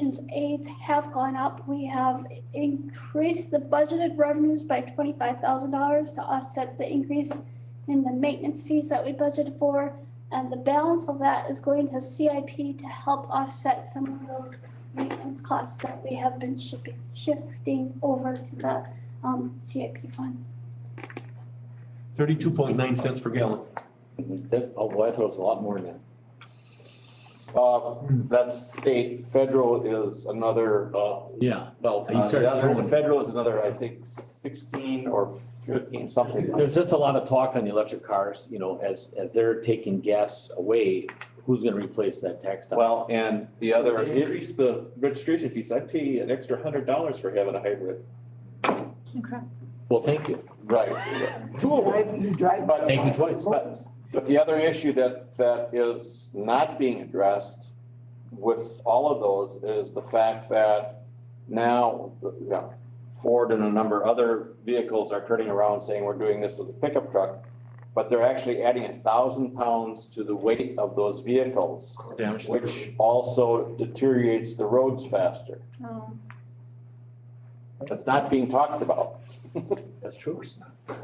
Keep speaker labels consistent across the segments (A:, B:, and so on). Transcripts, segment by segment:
A: patients' aides have gone up. We have increased the budgeted revenues by twenty-five thousand dollars to offset the increase in the maintenance fees that we budgeted for. And the balance of that is going to CIP to help offset some of those maintenance costs that we have been shipping, shifting over to the um CIP fund.
B: Thirty-two point nine cents per gallon.
C: That, oh boy, I thought it was a lot more than that.
D: Uh, that's state, federal is another, uh,
C: Yeah.
D: well,
C: You
D: uh,
C: started
D: the other-
C: throwing.
D: federal is another, I think sixteen or fifteen, something.
C: There's just a lot of talk on the electric cars, you know, as, as they're taking gas away, who's gonna replace that tax dollar?
E: Well, and the other,
D: They
E: increase the registration fees. I pay an extra hundred dollars for having a hybrid.
C: Well, thank you.
D: Right,
E: Two of them.
F: Drive, you drive.
D: but.
C: Thank you twice.
D: But, but the other issue that, that is not being addressed with all of those is the fact that now, you know, Ford and a number of other vehicles are turning around saying we're doing this with a pickup truck, but they're actually adding a thousand pounds to the weight of those vehicles,
B: Damage.
D: which also deteriorates the roads faster. That's not being talked about.
C: That's true.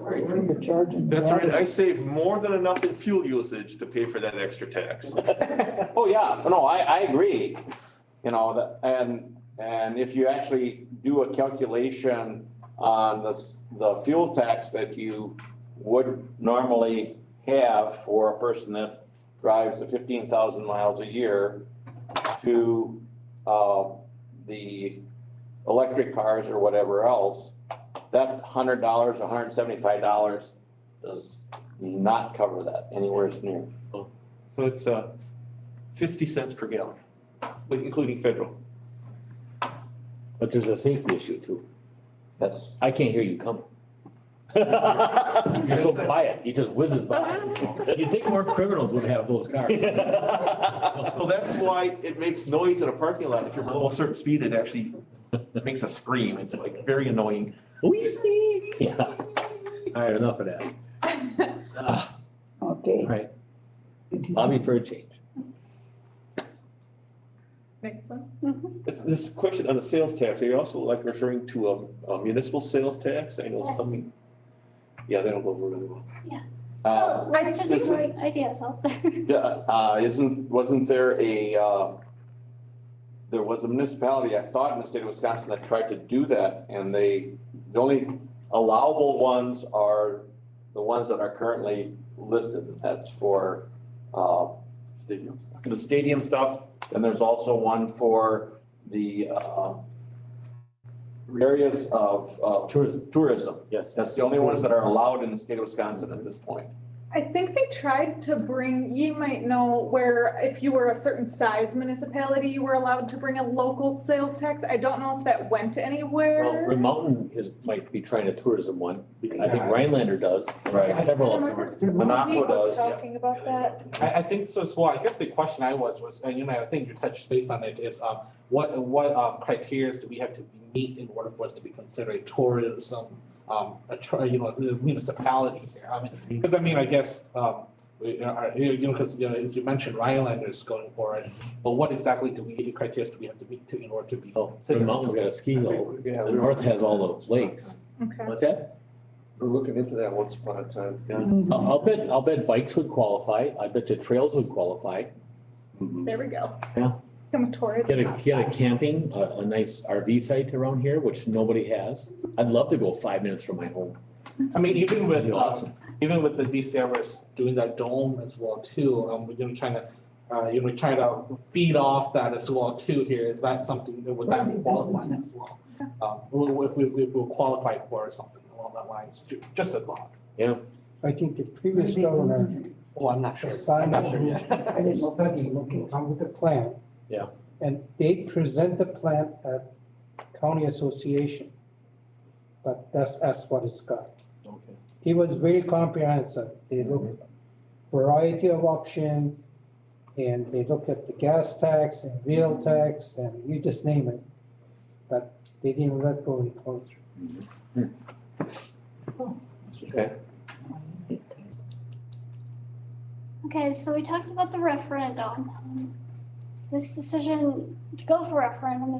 F: Where are you charging?
E: That's right. I save more than enough in fuel usage to pay for that extra tax.
D: Oh, yeah, no, I, I agree, you know, that, and, and if you actually do a calculation on the, s- the fuel tax that you would normally have for a person that drives the fifteen thousand miles a year to, uh, the electric cars or whatever else, that hundred dollars, hundred and seventy-five dollars does not cover that anywhere near.
E: So it's uh fifty cents per gallon, with- including federal.
C: But there's a safety issue too.
D: That's
C: I can't hear you coming. You're so quiet. He just whizzes by. You'd think more criminals would have those cars.
E: So that's why it makes noise in a parking lot. If you're below a certain speed, it actually makes a scream. It's like very annoying.
C: Whee! Yeah. All right, enough of that. Ah,
F: Okay.
C: All right. Lobby for a change.
G: Next one.
E: It's this question on the sales tax. Are you also like referring to um, a municipal sales tax? I know
A: Yes.
E: some. Yeah, that'll go really well.
D: Uh,
A: So we're just
D: this-
A: throwing ideas out there.
D: Yeah, uh, isn't, wasn't there a, uh, there was a municipality, I thought in the state of Wisconsin that tried to do that and they, the only allowable ones are the ones that are currently listed. That's for, uh,
E: Stadiums.
D: the stadium stuff. And there's also one for the, uh, areas of, uh,
C: Tourism,
D: tourism.
C: yes.
D: That's the only ones that are allowed in the state of Wisconsin at this point.
G: I think they tried to bring, you might know where if you were a certain size municipality, you were allowed to bring a local sales tax. I don't know if that went
C: Well,
G: anywhere.
C: Green Mountain is, might be trying a tourism one. I think Rhinelander does.
D: Right.
C: Several of them are.
G: He
D: Monaco
G: was
D: does, yeah.
G: talking about that.
H: I, I think so as well. I guess the question I was was, and you know, I think you touched base on it is, um, what what um, criteria do we have to meet in order for us to be considered a tourism, um, a tr- you know, the municipality here? I mean, because I mean, I guess um, we you know, are, you know, because you know, as you mentioned, Rhinelander is going for it, but what exactly do we criteria do we have to meet to in order to be?
C: Oh, Green Mountain's got a ski hill.
H: Yeah,
C: The
H: we-
C: north has all those lakes.
G: Okay.
C: What's that?
I: We're looking into that once upon a time.
C: I'll, I'll bet, I'll bet bikes would qualify. I bet you trails would qualify.
G: There we go.
C: Yeah.
G: Become a tourist.
C: Get a, get a camping, a, a nice RV site around here, which nobody has. I'd love to go five minutes from my home.
H: I mean, even with
C: That'd be
H: um,
C: awesome.
H: even with the DCFS doing that dome as well too, um, we're gonna try to, uh, you know, try to feed off that as well too here, is that something that would that qualify as well? Um, we- if we, if we qualify for something along that lines, ju- just a thought,
J: I think the previous governor
H: oh, I'm not sure, I'm
J: assigned
H: not
J: a
H: sure yet.
J: group to study, to come with a plan.
C: Yeah.
J: And they present the plan at county association. But that's, that's what it's got.
C: Okay.
J: It was very comprehensive. They
H: Mm-hmm.
J: looked variety of options and they looked at the gas tax and
H: Mm-hmm.
J: wheel tax and you just name it. But they didn't let go of it.
C: Okay.
A: Okay, so we talked about the referendum. Um, This decision to go for referendum